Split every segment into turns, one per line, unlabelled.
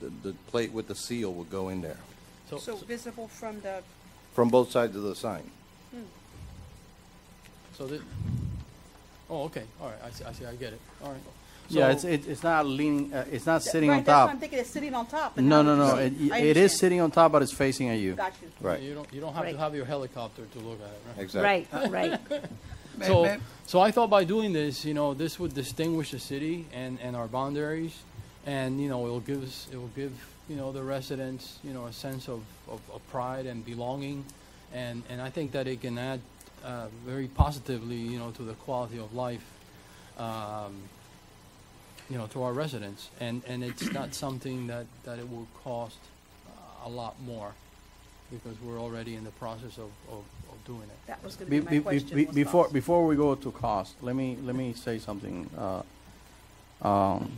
the, the plate with the seal will go in there,
So visible from the,
from both sides of the sign.
So that, oh, okay, all right, I see, I see, I get it, all right.
Yeah, it's,
So-
it- it's not leaning, uh, it's not sitting on
right, that's what I'm
top.
thinking, it's sitting on top. and
No,
not
no, no,
on
it,
the seat. I
it is
understand.
sitting on top, but it's facing at you.
Got you.
Right,
You don't, you don't have to
Right.
have your helicopter to look at it, right?
exactly.
Right, right.
So, so I thought by doing this, you know, this would distinguish the city and, and our boundaries, and you know, it'll give us, it will give you know the residents, you know, a sense of, of, of pride and belonging, and and I think that it can add uh, very positively, you know, to the quality of life, um, you know, to our residents, and and it's not something that that it will cost uh, a lot more, because we're already in the process of of, of doing it.
That was going
Be-
to be
be-
my
be-
question.
be-
was
Before,
cost.
before we go to cost, let me, let me say something. uh, um,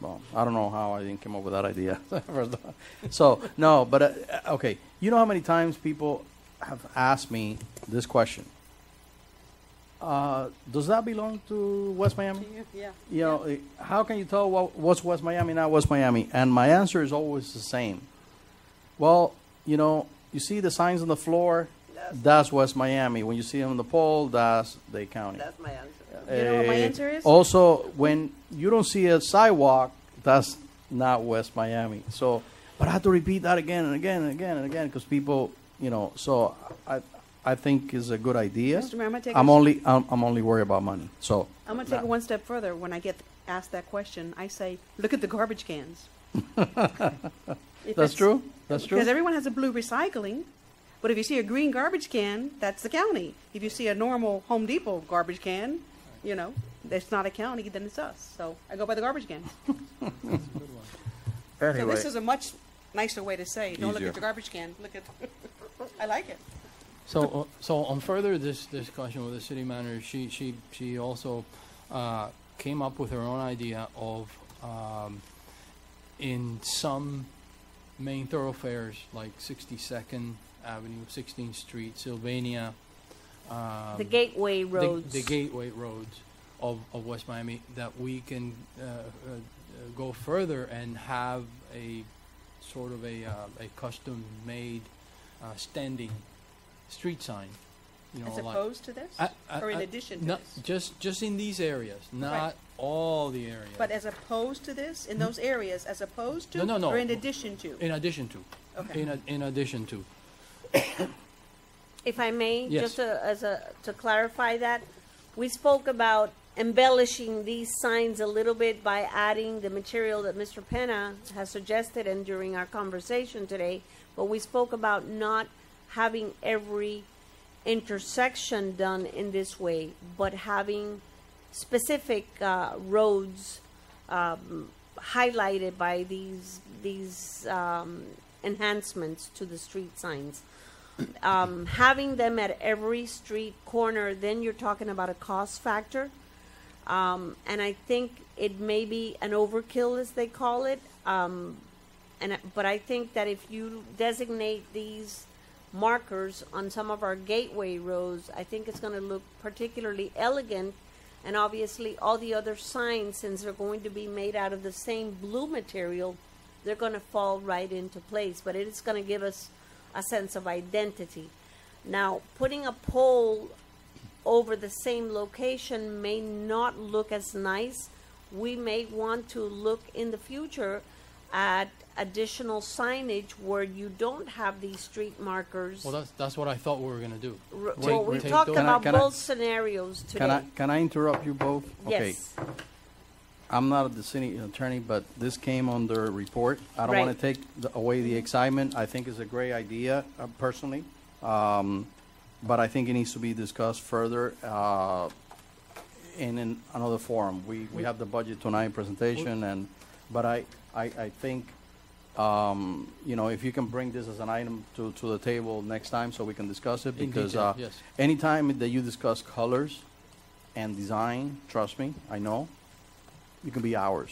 Well, I don't know how I didn't come up with that idea. So, no, but, uh, okay, you know how many times people have asked me this question? Uh, Does that belong to West Miami?
Yeah.
you know, eh, how can you tell what, what's West Miami, not West Miami? And my answer is always the same. Well, you know, you see the signs on the floor, that's West Miami. When you see them on the pole, that's Dade County.
That's my answer.
You know what my
Eh,
answer is?
Also, when you don't see a sidewalk, that's not West Miami. So, but I have to repeat that again and again and again and again because people, you know. So, I, I think is a good idea.
Mr. Mayor, I'm gonna take
I'm
a-
only, I'm, I'm only worried about money. So,
I'm going to take it one step further. When I get asked that question, I say, look at the garbage cans. If
that's
it's-
true. That's true.
Because everyone has a blue recycling, but if you see a green garbage can, that's the county. If you see a normal Home Depot garbage can, you know, it's not a county, then it's us. So I go by the garbage cans. So this is a much nicer way to say, don't look
Easier.
at the garbage can, look at, I like it.
So, uh, so on further this discussion with the city manager, she she she also uh, came up with her own idea of um, in some main thoroughfares like 62nd Avenue, 16th Street, Sylvania, um,
The gateway
the-
roads.
the gateway roads of, of West Miami, that we can uh, uh, uh, go further and have a sort of a, uh, a custom-made uh, standing street sign, you know,
As
like-
opposed to this?
I- I-
Or in
I-
addition to
not-
this?
Just, just in these areas, not all the areas.
But as opposed to this, in those areas, as opposed to?
No, no, no.
Or in addition to?
In addition to.
Okay.
In, a- in addition to.
If I may,
Yes.
just to, as a, to clarify that, we spoke about embellishing these signs a little bit by adding the material that Mr. Penna has suggested and during our conversation today, but we spoke about not having every intersection done in this way, but having specific, uh, roads, um, highlighted by these, these, um, enhancements to the street signs um, having them at every street corner, then you're talking about a cost factor. Um, and I think it may be an overkill, as they call it. Um, and I- but I think that if you designate these markers on some of our gateway roads, I think it's going to look particularly elegant. And obviously, all the other signs, since they're going to be made out of the same blue material, they're going to fall right into place. But it is going to give us a sense of identity. Now, putting a pole over the same location may not look as nice. We may want to look in the future at additional signage where you don't have these street markers.
Well, that's, that's what I thought we were going to do.
R-
Wait,
Well, we
take
talked
those-
Can I-
about
can I-
both scenarios
Can I,
today.
can I interrupt you both? Okay,
Yes,
I'm not the city attorney, but this came on the report. I don't want
Right.
to take the- away the excitement. I think it's a great idea uh, personally. Um, But I think it needs to be discussed further uh, in an- another forum. We, we have the budget tonight presentation and, but I, I, I think, um, you know, if you can bring this as an item to, to the table next time so we can discuss it
In
because
detail,
uh,
yes.
anytime that you discuss colors and design, trust me, I know, it can be hours.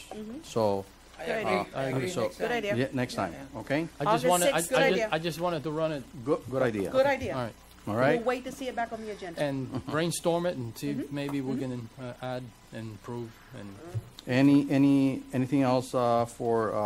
So,
Good
I agree.
idea.
So-
Mm-hmm. Good idea.
yeah, next time,
I
okay?
just
August
wanted, I-
6th, good
I
idea.
just, I just wanted to run it,
Good, good idea.
Good
all
idea.
right,
All
We'll
right?
wait to see it back on the agenda.
and brainstorm it and see if maybe we can uh, add and improve and
Any, any, anything else uh, for uh,